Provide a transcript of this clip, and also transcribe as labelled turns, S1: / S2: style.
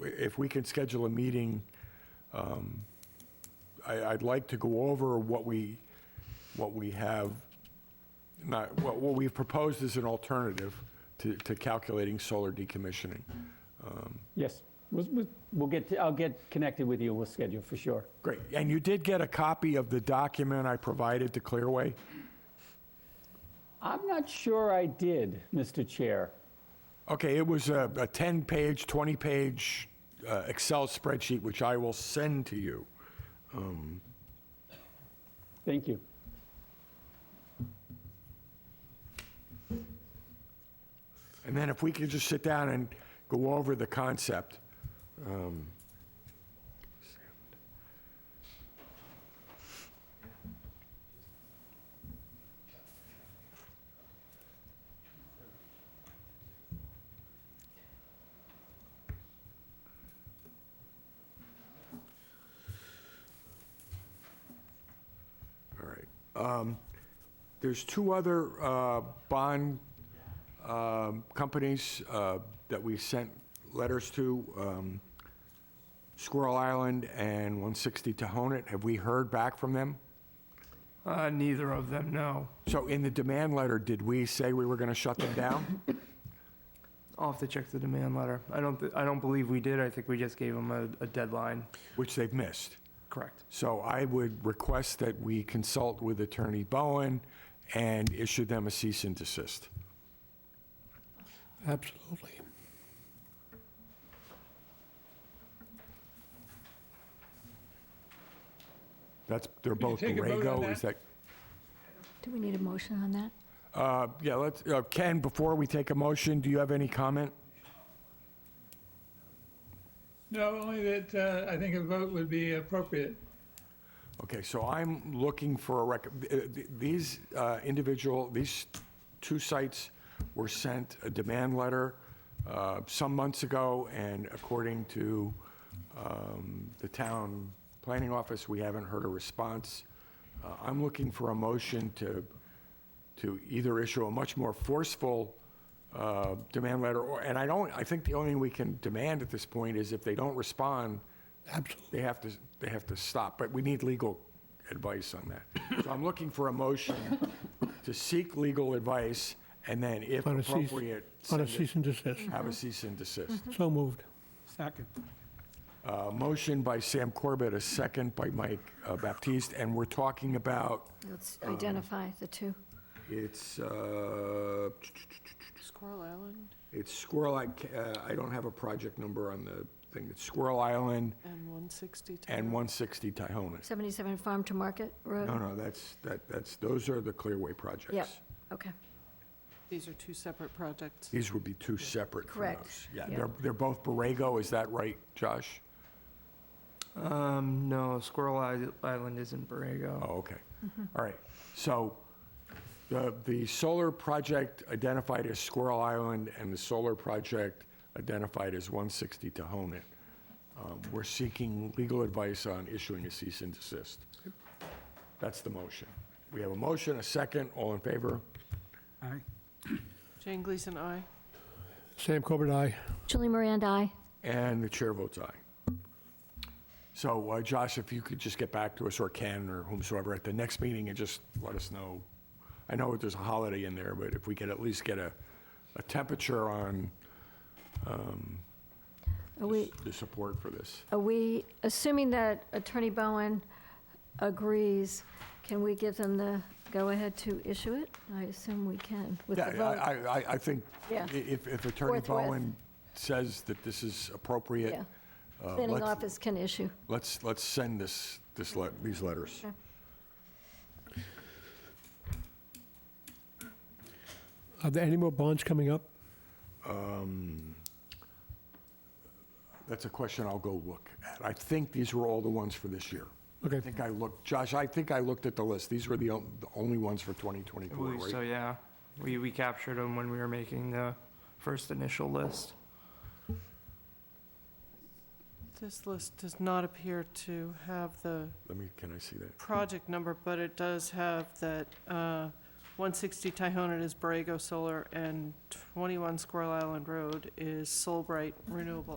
S1: if we can schedule a meeting, um, I, I'd like to go over what we, what we have, not, what, what we've proposed as an alternative to, to calculating solar decommissioning.
S2: Yes, we'll, we'll- we'll get, I'll get connected with you, we'll schedule for sure.
S1: Great, and you did get a copy of the document I provided to Clearway?
S2: I'm not sure I did, Mr. Chair.
S1: Okay, it was a, a 10-page, 20-page uh, Excel spreadsheet, which I will send to you.
S2: Thank you.
S1: And then if we could just sit down and go over the concept. um, All right. Um, There's two other uh, bond um, companies uh, that we sent letters to, um, Squirrel Island and 160 Tohonet, have we heard back from them?
S3: Uh, neither of them, no.
S1: So in the demand letter, did we say we were going to shut them down?
S3: I'll have to check the demand letter. I don't, thi- I don't believe we did. I think we just gave them a, a deadline.
S1: Which they've missed.
S3: Correct.
S1: So I would request that we consult with Attorney Bowen and issue them a cease and desist.
S4: Absolutely.
S1: That's, they're both
S5: take a vote on
S1: Borrego, is that?
S6: Do we need a motion on that?
S1: Uh, Yeah, let's, uh, Ken, before we take a motion, do you have any comment?
S5: No, only that uh, I think a vote would be appropriate.
S1: Okay, so I'm looking for a rec, uh, th- these uh, individual, these two sites were sent a demand letter uh, some months ago, and according to um, the town planning office, we haven't heard a response. Uh, I'm looking for a motion to, to either issue a much more forceful uh, demand letter, or, and I don't, I think the only thing we can demand at this point is if they don't respond,
S4: Absolutely.
S1: they have to, they have to stop, but we need legal advice on that. So I'm looking for a motion to seek legal advice, and then if
S4: On a cease-
S1: appropriate,
S4: On a
S1: send it-
S4: cease and desist.
S1: have a cease and desist.
S4: So moved.
S5: Second.
S1: A motion by Sam Corbett, a second by Mike uh, Baptiste, and we're talking about,
S6: Let's
S1: Um,
S6: identify the two.
S1: it's, uh,
S7: Squirrel Island
S1: it's Squirrel, I, ca- uh, I don't have a project number on the thing, it's Squirrel Island
S7: and 160 Town.
S1: and 160 Tyhonas.
S6: 77 Farm to Market Road?
S1: No, no, that's, that, that's, those are the Clearway projects.
S6: Yep, okay.
S7: These are two separate projects.
S1: These would be two separate from
S6: Correct.
S1: those. Yeah,
S6: Yeah.
S1: they're, they're both Borrego, is that right, Josh?
S3: Um, no, Squirrel Is- Island isn't Borrego.
S1: Oh, okay. All right. So the, the solar project identified as Squirrel Island and the solar project identified as 160 Tohonet. Um, We're seeking legal advice on issuing a cease and desist. That's the motion. We have a motion, a second, all in favor?
S7: Jane Gleason, aye.
S4: Sam Corbett, aye.
S6: Julie Miranda, aye.
S1: And the chair votes aye. So uh, Josh, if you could just get back to us, or Ken, or whomsoever, at the next meeting, and just let us know. I know there's a holiday in there, but if we could at least get a, a temperature on
S6: Are we,
S1: the support for this.
S6: are we, assuming that Attorney Bowen agrees, can we give them the go-ahead to issue it? I assume we can with the
S1: Yeah,
S6: vote.
S1: I, I- I, I think i-
S6: Yeah.
S1: if, if Attorney
S6: Forthwith.
S1: Bowen says that this is appropriate,
S6: Yeah.
S1: uh,
S6: Planning
S1: let's,
S6: office can issue.
S1: let's, let's send this, this, let- these letters.
S4: Are there any more bonds coming up?
S1: That's a question I'll go look at. I think these were all the ones for this year.
S4: Okay.
S1: I think I looked, Josh, I think I looked at the list. These were the on- the only ones for
S3: I
S1: 2024,
S3: believe so,
S1: right?
S3: yeah. We, we captured them when we were making the first initial list.
S7: This list does not appear to have the
S1: Let me, can I see that?
S7: project number, but it does have that uh, 160 Tyhonet is Borrego Solar and 21 Squirrel Island Road is Solbright Renewable